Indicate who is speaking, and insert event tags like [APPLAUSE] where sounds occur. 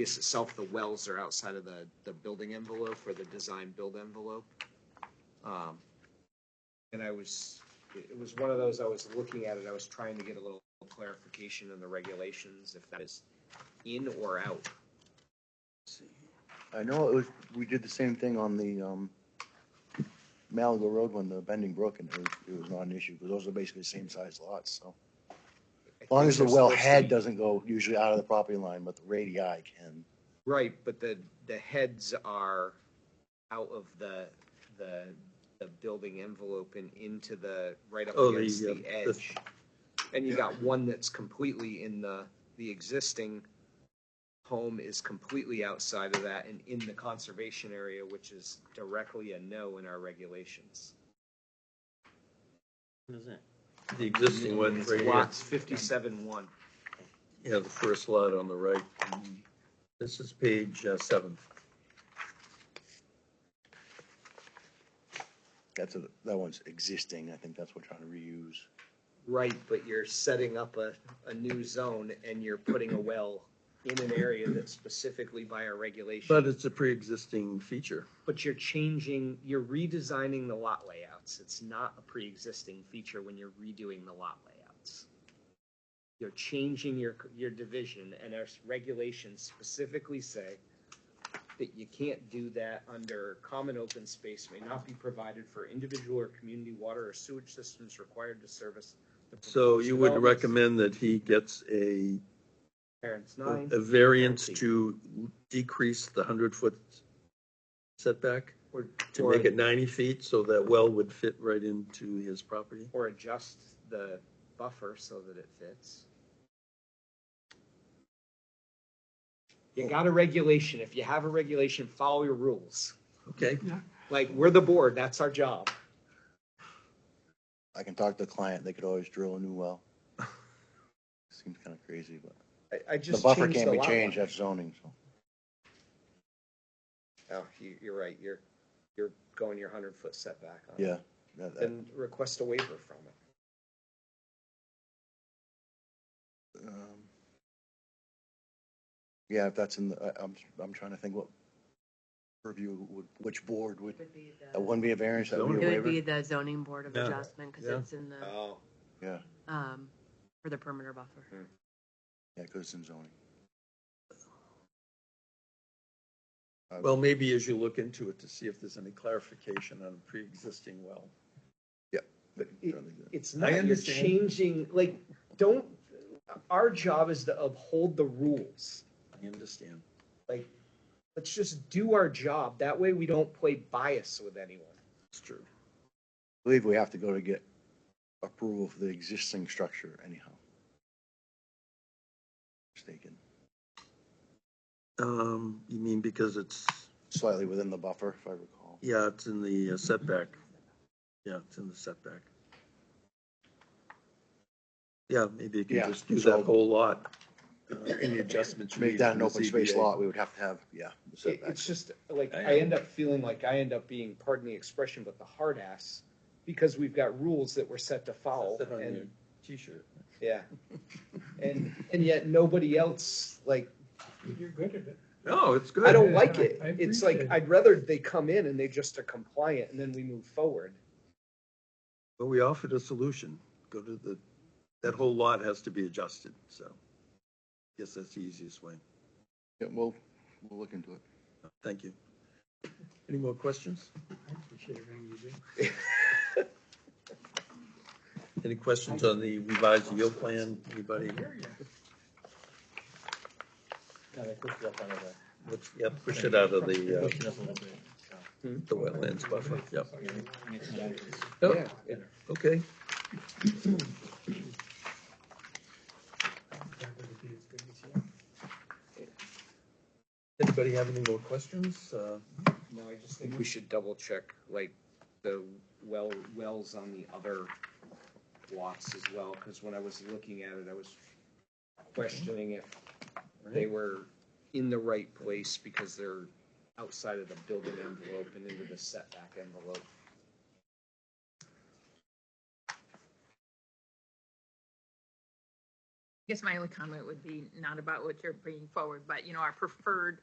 Speaker 1: Yes, itself, the wells are outside of the, the building envelope or the design build envelope. Um, And I was, it it was one of those, I was looking at it, I was trying to get a little clarification in the regulations, if that is in or out.
Speaker 2: I know it was, we did the same thing on the, um, Malaga Road when the Bending Brook, and it was, it was not an issue, because those are basically the same size lots, so.
Speaker 1: I
Speaker 2: As long
Speaker 1: think
Speaker 2: as the
Speaker 1: they're
Speaker 2: well
Speaker 1: supposed to
Speaker 2: head
Speaker 1: be-
Speaker 2: doesn't go usually out of the property line, but the radii can.
Speaker 1: Right, but the, the heads are out of the, the, the building envelope and into the, right up
Speaker 3: Oh, the,
Speaker 1: against the
Speaker 3: uh, the-
Speaker 1: edge. And you got one that's completely in the, the existing home is completely outside of that and in the conservation area, which is directly a no in our regulations.
Speaker 3: The existing one
Speaker 1: It's
Speaker 3: right here,
Speaker 1: Lots fifty-seven one.
Speaker 3: yeah, the first lot on the right. This is page uh, seven.
Speaker 2: That's a, that one's existing. I think that's what we're trying to reuse.
Speaker 1: Right, but you're setting up a, a new zone and you're putting a well in an area that's specifically by our regulation.
Speaker 3: But it's a pre-existing feature.
Speaker 1: But you're changing, you're redesigning the lot layouts. It's not a pre-existing feature when you're redoing the lot layouts. You're changing your, your division and our regulations specifically say that you can't do that under common open space may not be provided for individual or community water or sewage systems required to service. the
Speaker 3: So you would
Speaker 1: proposed developments.
Speaker 3: recommend that he gets a,
Speaker 1: Parents nine
Speaker 3: a variance to decrease the hundred-foot setback?
Speaker 1: or,
Speaker 3: To
Speaker 1: or-
Speaker 3: make it ninety feet so that well would fit right into his property?
Speaker 1: or adjust the buffer so that it fits. You got a regulation. If you have a regulation, follow your rules.
Speaker 3: Okay,
Speaker 1: Like, we're the board, that's our job.
Speaker 2: I can talk to the client. They could always drill a new
Speaker 1: [LAUGHS]
Speaker 2: well. Seems kind of crazy, but
Speaker 1: I, I
Speaker 2: the
Speaker 1: just
Speaker 2: buffer
Speaker 1: changed
Speaker 2: can't
Speaker 1: the
Speaker 2: be
Speaker 1: lot
Speaker 2: changed.
Speaker 1: line.
Speaker 2: That's zoning, so.
Speaker 1: Oh, you, you're right, you're, you're going your hundred foot setback on it.
Speaker 2: Yeah. that- that-
Speaker 1: Then request a waiver from it.
Speaker 2: um, Yeah, if that's in the, I, I'm, I'm trying to think what purview would, which board would,
Speaker 4: Would be the-
Speaker 2: that wouldn't be a variance, that would
Speaker 3: Zoning.
Speaker 2: be
Speaker 4: It
Speaker 2: a
Speaker 4: would
Speaker 2: waiver.
Speaker 4: be the zoning board of
Speaker 3: Yeah.
Speaker 4: adjustment, because
Speaker 3: Yeah.
Speaker 4: it's in the,
Speaker 1: Oh,
Speaker 2: Yeah,
Speaker 4: um, for the perimeter buffer.
Speaker 2: yeah, because it's in zoning. Uh,
Speaker 3: well, maybe as you look into it to see if there's any clarification on a pre-existing well.
Speaker 2: but
Speaker 1: it-
Speaker 2: I think that-
Speaker 1: It's not, you're
Speaker 3: understand.
Speaker 1: changing, like, don't, our job is to uphold the rules.
Speaker 3: I understand.
Speaker 1: Like, let's just do our job. That way we don't play bias with anyone.
Speaker 3: It's true.
Speaker 2: I believe we have to go to get approval for the existing structure anyhow. Mistaken,
Speaker 3: Um, you mean because it's,
Speaker 2: slightly within the buffer, if I recall.
Speaker 3: yeah, it's in the uh, setback. Yeah, it's in the setback. Yeah, maybe you
Speaker 2: Yeah,
Speaker 3: can just do
Speaker 2: so-
Speaker 3: that whole lot, uh, any adjustments.
Speaker 2: To make that an
Speaker 3: made to
Speaker 2: open
Speaker 3: the
Speaker 2: space
Speaker 3: ZBA.
Speaker 2: lot, we would have to have, yeah, the
Speaker 1: It-
Speaker 2: setback.
Speaker 1: It's just, like,
Speaker 3: I
Speaker 1: I end up feeling like I end up being, pardon the expression, but the hard ass because we've got rules that we're set to follow
Speaker 3: That's on your
Speaker 1: and,
Speaker 3: T-shirt.
Speaker 1: yeah. And, and yet nobody else, like,
Speaker 5: You're good at it.
Speaker 3: No, it's good.
Speaker 1: I don't like it.
Speaker 5: I
Speaker 1: It's like,
Speaker 5: appreciate it.
Speaker 1: I'd rather they come in and they just are compliant and then we move forward.
Speaker 3: But we offered a solution. Go to the, that whole lot has to be adjusted, so. Guess that's the easiest way.
Speaker 2: Yeah, we'll, we'll look into it.
Speaker 3: Thank you. Any more questions?
Speaker 5: I appreciate everything you do.
Speaker 3: Any questions on the revised yield plan? Anybody? Let's, yeah, push it out of the, uh, the wetlands buffer, yep.
Speaker 5: Oh,
Speaker 1: Yeah.
Speaker 3: Yep, Okay,
Speaker 5: That would be as good as you.
Speaker 3: anybody have any more questions? Uh,
Speaker 1: No, I just think we should double check, like, the well, wells on the other lots as well, because when I was looking at it, I was questioning if they were in the right place because they're outside of the building envelope and into the setback envelope.
Speaker 6: guess my only comment would be not about what you're bringing forward, but you know, our preferred